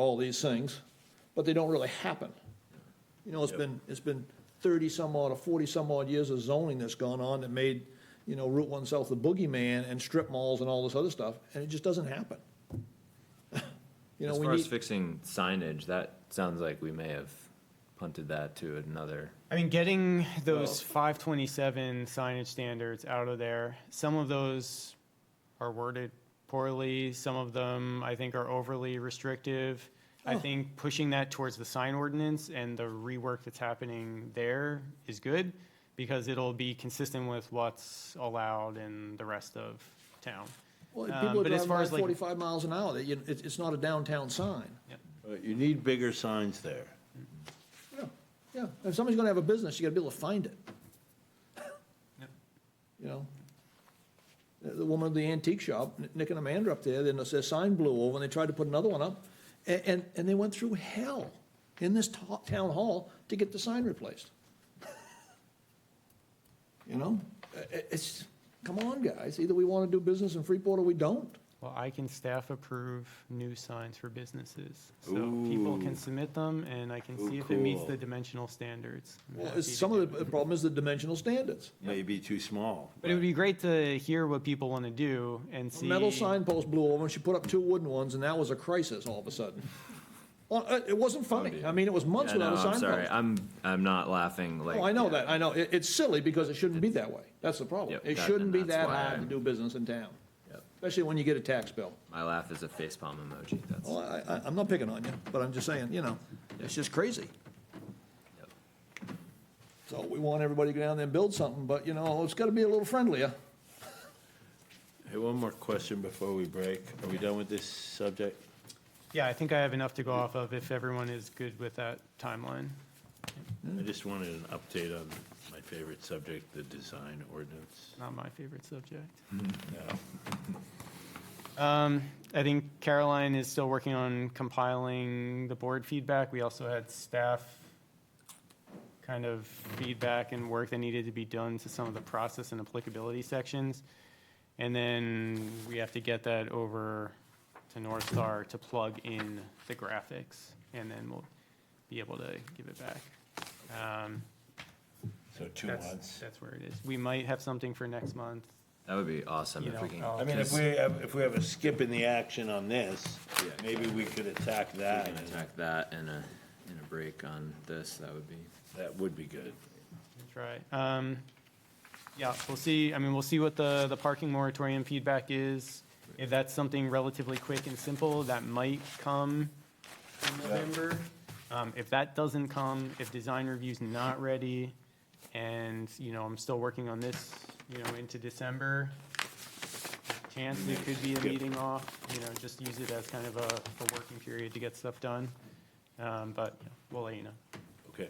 all these things, but they don't really happen. You know, it's Yep. been, it's been thirty-some odd or forty-some odd years of zoning that's gone on that made, you know, Route One South the boogeyman and strip malls and all this other stuff, and it just doesn't happen. You know, As we far as need, fixing signage, that sounds like we may have punted that to another. I mean, getting those 527 signage standards out of there, some of those are worded poorly, some of them, I think, are overly restrictive. I think pushing that towards the sign ordinance and the rework that's happening there is good, because it'll be consistent with what's allowed in the rest of town. well, um, people are but as driving far by as, like- forty-five miles an hour, they- you- it's, it's not a downtown sign. Uh, You need bigger signs there. Yeah, Yeah, if somebody's gonna have a business, you gotta be able to find it. You know? The the woman at the antique shop, N- Nick and Amanda up there, then their sign blew over, and they tried to put another one up, and, and, and they went through hell in this to- town hall to get the sign replaced. You know, I- I- it's, come on, guys, either we wanna do business in Freeport or we don't. Well, I can staff approve new signs for businesses, so people can submit them, and I can Ooh, see if it meets the cool. dimensional standards. I'm Well, happy it's, to some do of it. the problem is the dimensional standards. Maybe too small. But it would be great to hear what people want to do A and see. metal signpost blew over, and she put up two wooden ones, and that was a crisis all of a sudden. Well, uh, it wasn't funny. I mean, it was months Oh, Yeah, no, without a I'm sorry, signpost. I'm, I'm not laughing like. Oh, I know that, I know. It, it's silly because it shouldn't be that way. That's the problem. Yep, It that- shouldn't be and that that's why hard to I'm- do business in town, Yep. especially when you get a tax bill. My laugh is a face palm emoji, that's. Well, I, I, I'm not picking on you, but I'm just saying, you know, it's just crazy. Yep. So we want everybody to go down there and build something, but you know, it's gotta be a little friendlier. Hey, one more question before we break. Are we done with this subject? Yeah, I think I have enough to go off of if everyone is good with that timeline. I just wanted an update on my favorite subject, the design ordinance. Not my favorite subject. No. Um, I think Caroline is still working on compiling the board feedback. We also had staff kind of feedback and work that needed to be done to some of the process and applicability sections. And then we have to get that over to North Star to plug in the graphics, and then we'll be able to give it back. Um, So two That's, months. that's where it is. We might have something for next month. That would be awesome You if know, oh, we can. I'll- I mean, if just- we, have- if we have a skip in the action on this, Yeah. maybe we could attack that. we can and Attack that and a, and a break on this, that would be. That would be good. Try. Um, yeah, we'll see, I mean, we'll see what the, the parking moratorium feedback is. If that's something relatively quick and simple, that might come in November. Um, if that doesn't come, if design review's not ready, and, you know, I'm still working on this, you know, into December, chance it could be a meeting off, you know, just use it as kind of a, a working period to get stuff done. Um, but yeah, we'll let you know. Okay.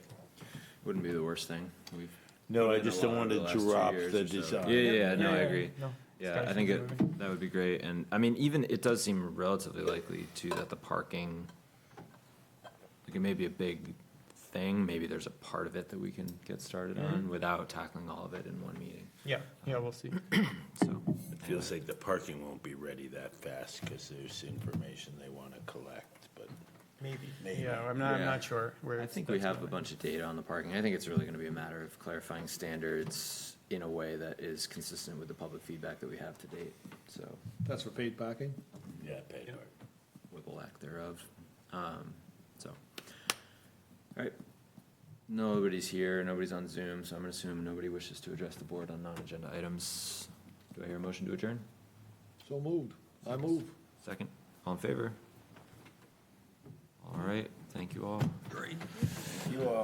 Wouldn't be the worst thing. We've. No, put I in a just don't lot want over to the last two drop years the or so. design. Yeah, yeah, yeah, no, I Yeah, yeah, agree. no. Yeah, Gotta I think keep it it, that would be great, and, I mean, even, it does seem relatively likely too that the parking, like, it may be a big thing, maybe there's a part of it that we can get started on without tackling all of it in one meeting, Yeah, yeah, we'll see. so. It feels like the parking won't be ready that fast because there's information they want to collect, but Maybe. Maybe. Yeah, I'm not, I'm Yeah. not sure where. I think we have a bunch of data on the parking, I think it's really gonna be a matter of clarifying standards in a way that is consistent with the public feedback that we have to date, so. That's for paid parking? yeah, paid Yeah. for it. with the lack thereof. Um, so, all right. Nobody's here, nobody's on Zoom, so I'm gonna assume nobody wishes to address the board on non-agenda items. Do I hear a motion to adjourn? So moved. I move. Second, all in favor? All right, thank you all. You all